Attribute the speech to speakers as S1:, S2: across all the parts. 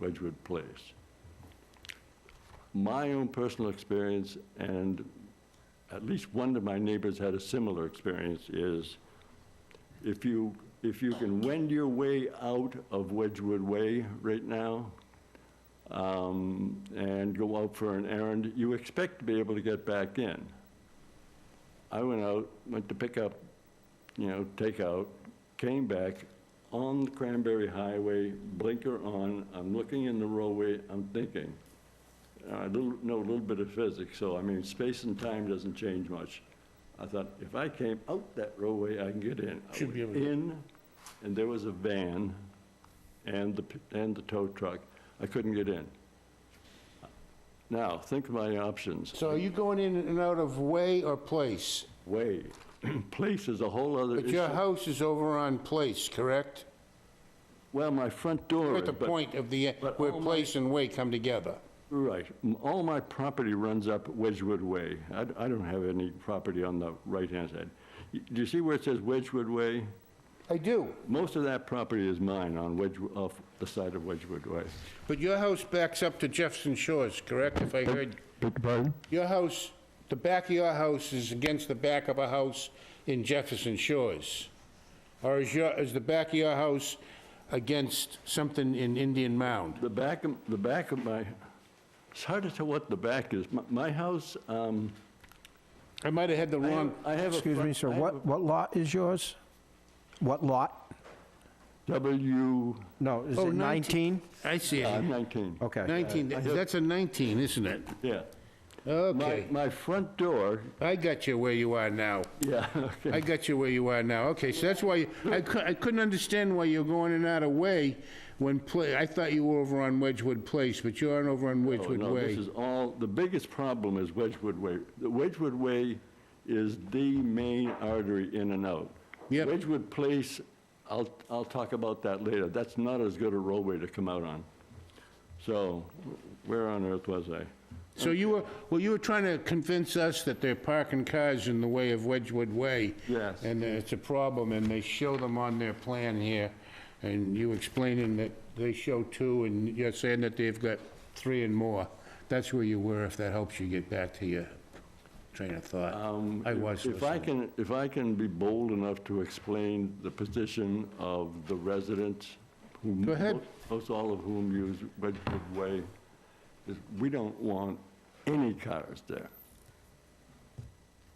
S1: Wedgewood Place. My own personal experience, and at least one of my neighbors had a similar experience, is if you, if you can wend your way out of Wedgewood Way right now, um, and go out for an errand, you expect to be able to get back in. I went out, went to pick up, you know, takeout, came back on the Cranberry Highway, blinker on, I'm looking in the roadway, I'm thinking. uh, I little- know a little bit of physics, so I mean, space and time doesn't change much. I thought, if I came out that roadway, I can get in. I
S2: Should be
S1: went
S2: able to.
S1: In, and there was a van and the, p- and the tow truck. I couldn't get in. Now, think of my options.
S2: So are you going in and out of way or place?
S1: Way, place is a whole other
S2: But your
S1: issue.
S2: house is over on place, correct?
S1: Well, my front door
S2: You're
S1: is,
S2: At the
S1: but-
S2: point of the, e,
S1: but
S2: where
S1: all my-
S2: place and way come together.
S1: Right. M- All my property runs up Wedgewood Way. I d- I don't have any property on the right-hand side. Y- Do you see where it says Wedgewood Way?
S2: I do.
S1: Most of that property is mine on Wedge, off the side of Wedgewood Way.
S2: But your house backs up to Jefferson Shores, correct, if I heard? Your house, the back of your house is against the back of a house in Jefferson Shores? Or is your, is the back of your house against something in Indian Mound?
S1: The back, of- the back of my, it's hard to tell what the back is. My- My house, um,
S2: I might have had the
S1: I have-
S2: wrong,
S1: I have a...
S3: Excuse
S1: front-
S3: me, sir,
S1: I have
S3: what, what lot is yours? What lot?
S1: a W
S3: No, is
S2: Oh,
S3: it 19?
S2: I see
S1: Uh,
S2: it.
S1: 19.
S3: Okay.
S2: 19, that's a 19, isn't it?
S1: Yeah. My,
S2: Okay,
S1: my front door,
S2: I got you where you are now.
S1: yeah, okay.
S2: I got you where you are now. Okay, so that's why, I cou- I couldn't understand why you're going in out of way when, pla- I thought you were over on Wedgewood Place, but you aren't over on
S1: Oh,
S2: Wedgewood
S1: no,
S2: Way.
S1: This is all, the biggest problem is Wedgewood Way. The Wedgewood Way is the main artery in and out.
S2: Yep.
S1: Wedgewood Place, I'll, I'll talk about that later. That's not as good a roadway to come out on. So where on earth was I?
S2: So you were, well, you were trying to convince us that they're parking cars in the way of Wedgewood Way.
S1: Yes.
S2: And it's a problem, and they show them on their plan here, and you explaining that they show two, and you're saying that they've got three and more. That's where you were, if that helps you get back to your train of thought. I was
S1: Um, If I
S2: listening.
S1: can, if I can be bold enough to explain the position of the residents, whom...
S2: Go ahead.
S1: Most all of whom use Wedgewood Way, is we don't want any cars there.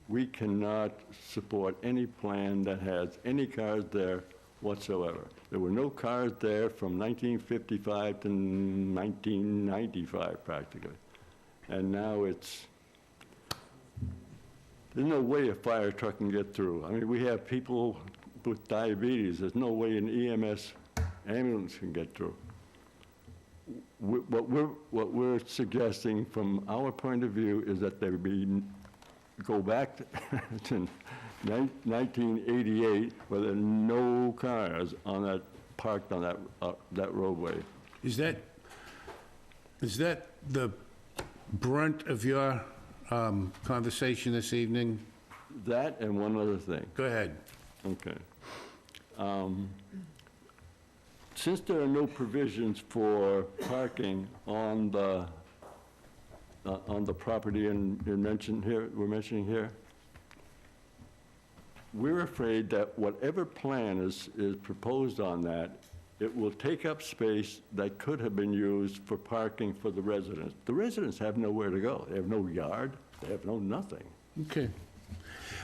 S1: We cannot support any plan that has any cars there whatsoever. There were no cars there from 1955 to 1995 practically. And now it's, there's no way a fire truck can get through. I mean, we have people with diabetes, there's no way an EMS ambulance can get through. We- What we're, what we're suggesting from our point of view is that there be, go back to nine- 1988, where there are no cars on that, parked on that, uh, that roadway.
S2: Is that, is that the brunt of your um, conversation this evening?
S1: That and one other thing.
S2: Go ahead.
S1: Okay. Um, Since there are no provisions for parking on the, uh, on the property in, in mentioned here, we're mentioning here, we're afraid that whatever plan is, is proposed on that, it will take up space that could have been used for parking for the residents. The residents have nowhere to go. They have no yard, they have no nothing.
S2: Okay.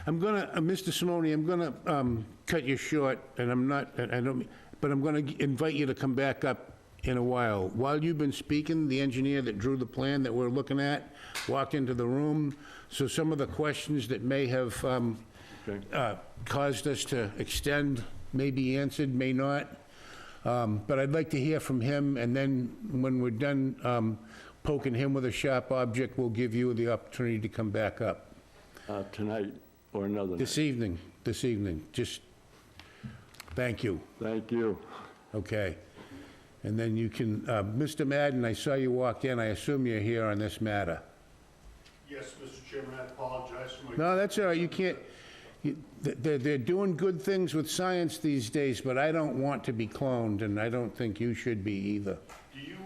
S2: I'm gonna, uh, Mr. Simone, I'm gonna um, cut you short, and I'm not, I I don't, but I'm gonna invite you to come back up in a while. While you've been speaking, the engineer that drew the plan that we're looking at walked into the room, so some of the questions that may have um,
S1: Okay.
S2: uh, caused us to extend may be answered, may not. Um, But I'd like to hear from him, and then when we're done um, poking him with a sharp object, we'll give you the opportunity to come back up.
S1: Uh, Tonight or another night.
S2: This evening, this evening, just, thank you,
S1: Thank you.
S2: okay? And then you can, uh, Mr. Madden, I saw you walk in, I assume you're here on this matter.
S4: Yes, Mr. Chairman, I apologize for my
S2: No, that's all right, you can't, you- th- they're, they're doing good things with science these days, but I don't want to be cloned, and I don't think you should be either.